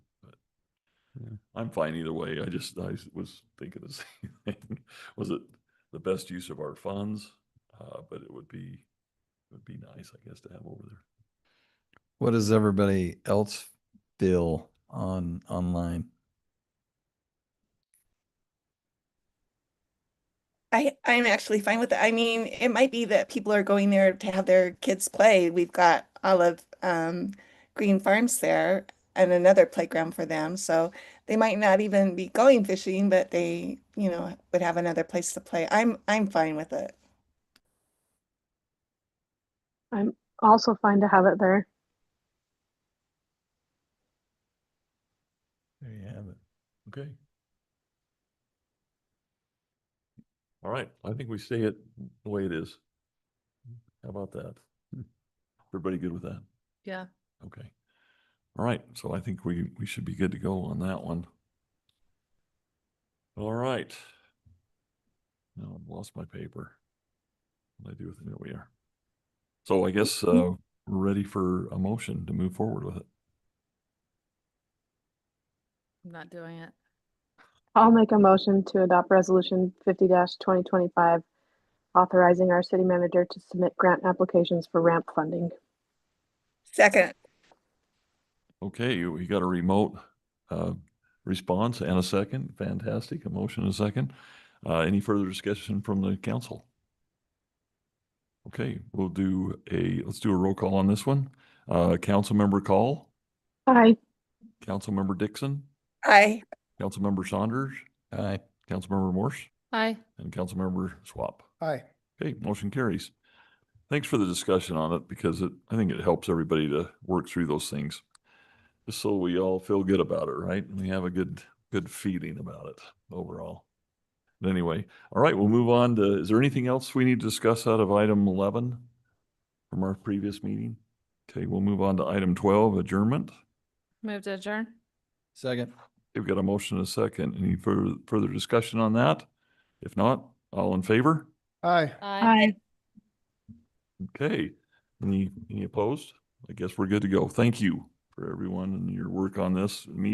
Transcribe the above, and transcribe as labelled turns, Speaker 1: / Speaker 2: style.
Speaker 1: I'm fine either way. I just, I s- was thinking the same thing. Was it the best use of our funds? Uh, but it would be, it would be nice, I guess, to have over there.
Speaker 2: What does everybody else feel on online?
Speaker 3: I, I'm actually fine with it. I mean, it might be that people are going there to have their kids play. We've got all of um, Green Farms there and another playground for them. So they might not even be going fishing, but they, you know, would have another place to play. I'm I'm fine with it.
Speaker 4: I'm also fine to have it there.
Speaker 1: There you have it. Okay. All right, I think we say it the way it is. How about that?
Speaker 2: Hmm.
Speaker 1: Everybody good with that?
Speaker 5: Yeah.
Speaker 1: Okay. All right, so I think we, we should be good to go on that one. All right. Now I've lost my paper. What do I do with it? There we are. So I guess, uh, we're ready for a motion to move forward with it.
Speaker 5: I'm not doing it.
Speaker 4: I'll make a motion to adopt resolution fifty twenty twenty-five, authorizing our city manager to submit grant applications for ramp funding.
Speaker 3: Second,
Speaker 1: Okay, you, you got a remote, uh, response and a second. Fantastic. A motion and a second. Uh, any further discussion from the council? Okay, we'll do a, let's do a roll call on this one. Uh, Councilmember Call,
Speaker 4: Aye.
Speaker 1: Councilmember Dixon,
Speaker 3: I
Speaker 1: Councilmember Saunders,
Speaker 2: Aye.
Speaker 1: Councilmember Morse,
Speaker 5: Aye.
Speaker 1: and Councilmember Swap.
Speaker 6: Aye.
Speaker 1: Okay, motion carries. Thanks for the discussion on it because it, I think it helps everybody to work through those things. Just so we all feel good about it, right? And we have a good, good feeling about it overall. But anyway, all right, we'll move on to, is there anything else we need to discuss out of item eleven from our previous meeting? Okay, we'll move on to item twelve, adjournment.
Speaker 5: Move to adjourn.
Speaker 2: Second.
Speaker 1: We've got a motion and a second. Any further, further discussion on that? If not, all in favor?
Speaker 6: Aye.
Speaker 1: Okay, any, any opposed? I guess we're good to go. Thank you for everyone and your work on this. Me-